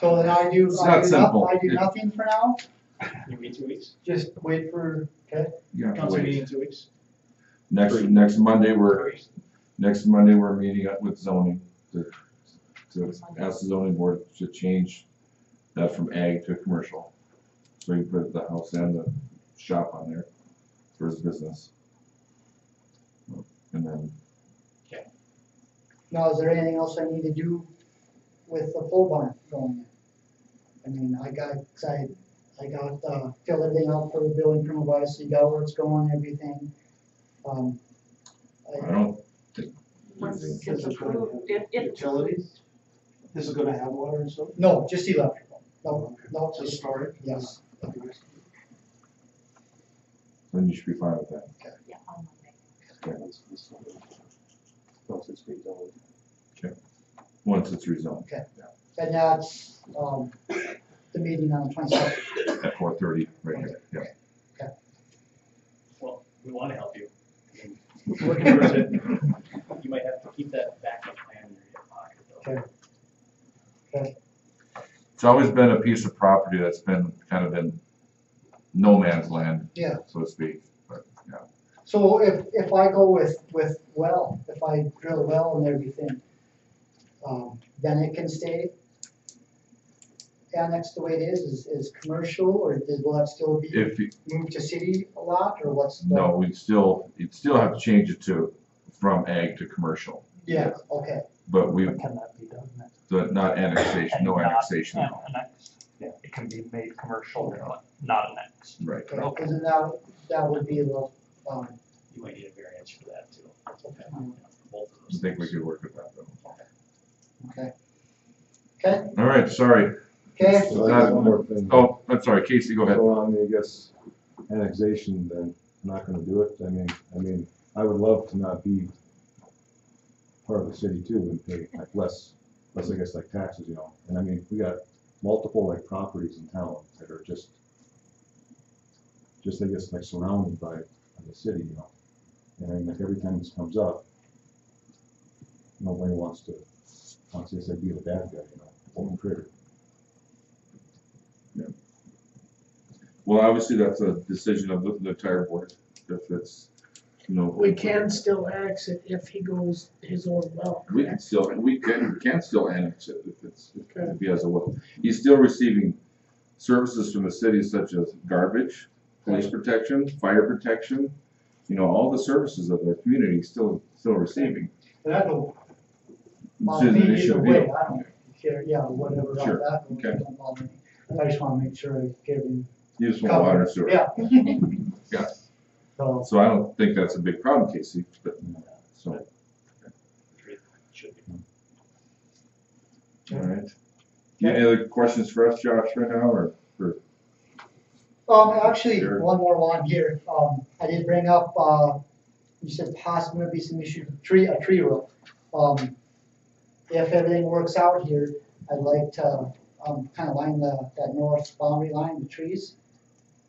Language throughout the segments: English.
So then I do, It's I not do not, simple. I do nothing for now, You meet two weeks, just wait for, okay, You have to council meeting wait. in two weeks. Next, Three. next Monday, we're, Two weeks. next Monday, we're meeting up with zoning to, to ask the zoning board to change that from ag to commercial. So you put the house and the shop on there for his business. And then, now is there anything else I need to do with the pole barn going in? I mean, I got, 'cause I, I got, uh, filled everything out for the building from above, so you got where it's going, everything, um. I don't, Once Yes, it's it's right. approved, if, if, Utilities? This is gonna have water and stuff? No, just electrical, no, no, So storage? yes, then you should be fine with that. yeah, on Monday. Once it's rezoned and that's, um, the meeting on the twenty-second, at four thirty, right here, yeah. Well, we want to help you. We're Working towards it, you might have to keep that backup plan in your pocket though. It's always been a piece of property that's been kind of in no man's land, yeah. so to speak, but, yeah. So if, if I go with, with well, if I drill a well and everything, um, then it can stay annexed the way it is, is, is commercial, or does, will that still be If, you- moved to city a lot, or what's the? no, we still, you'd still have to change it to, from ag to commercial, Yeah, okay, but we, Can that be done? then? the- not annexation, no And not annexation, Annexed. It can be made commercial, but not annexed. right. okay, cause then that, that would be a little, um, You might need a variance for that too. okay, Both of I those think we things. could work with that though. okay. Okay, All right, sorry. okay, So I got one more thing. Uh, Oh, I'm sorry, Casey, go ahead. So on the, I guess, annexation, then, I'm not gonna do it, I mean, I mean, I would love to not be part of the city too, and pay like less, less, I guess, like taxes, you know, and I mean, we got multiple like properties in town that are just, just, I guess, like surrounded by the city, you know, and like every time this comes up, nobody wants to, wants to say be the bad guy, you know, open critter. Well, obviously, that's a decision of the the entire board, if it's, you know. We can still annex it if he goes his own well. We can still, we can, we can still annex it if it's, if he has a will. He's still receiving services from the city such as garbage, police protection, fire protection, you know, all the services of their community he's still, still receiving. and I don't, It's bother just an me issue either of way, will. I don't care, yeah, whatever, all Sure, that, don't- okay. don't bother me. I just wanna make sure I give him, You just want water and sewer. yeah. Yeah. So. So I don't think that's a big problem, Casey, but, so, Should be. all right. Any other questions for us, Josh, right now, or? Um, actually, Sure. one more one here, um, I did bring up, uh, you said possibly be some issue, tree, a tree row. Um, if everything works out here, I'd like to, um, kind of line the, that north boundary line, the trees.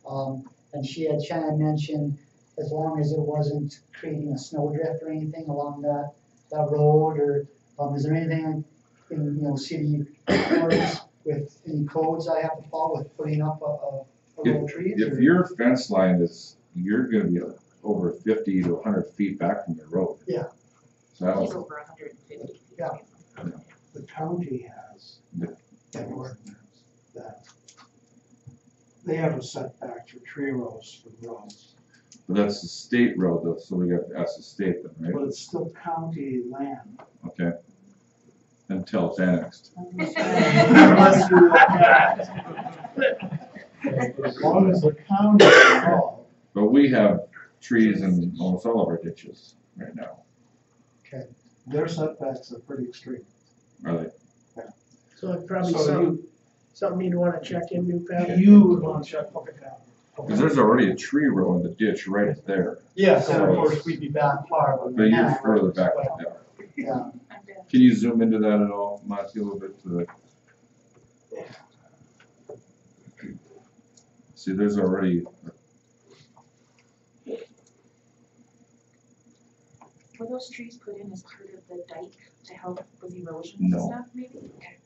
Um, and she had Shannon mentioned, as long as it wasn't creating a snowdrift or anything along that, that road, or, um, is there anything in, you know, city ordinance with any codes I have to follow with putting up a, a Little trees If or- your fence line is, you're gonna be over fifty to hundred feet back from the road. Yeah. So I He's don't, over hundred and fifty feet. Yeah. away from it. The county has Yeah. an ordinance that they have a setback for tree rows for roads, but that's the state road though, so we got to ask the state then, right? but it's still county land. Okay. Until it's annexed. Unless you look at it. As long as the county is involved, But we have trees in almost all of our ditches right now, their setbacks are pretty extreme. are they? So it's probably So some, something you'd wanna check in, new Pat. You would want to check public out. Cause there's already a tree row in the ditch right there, Yes, and of course, we'd be back far. but you're further back than that. Yeah, I'm good. Can you zoom into that at all, Monty, a little bit to the? See, there's already Were those trees put in as part of the dike to help with erosion No. and stuff, maybe? Okay.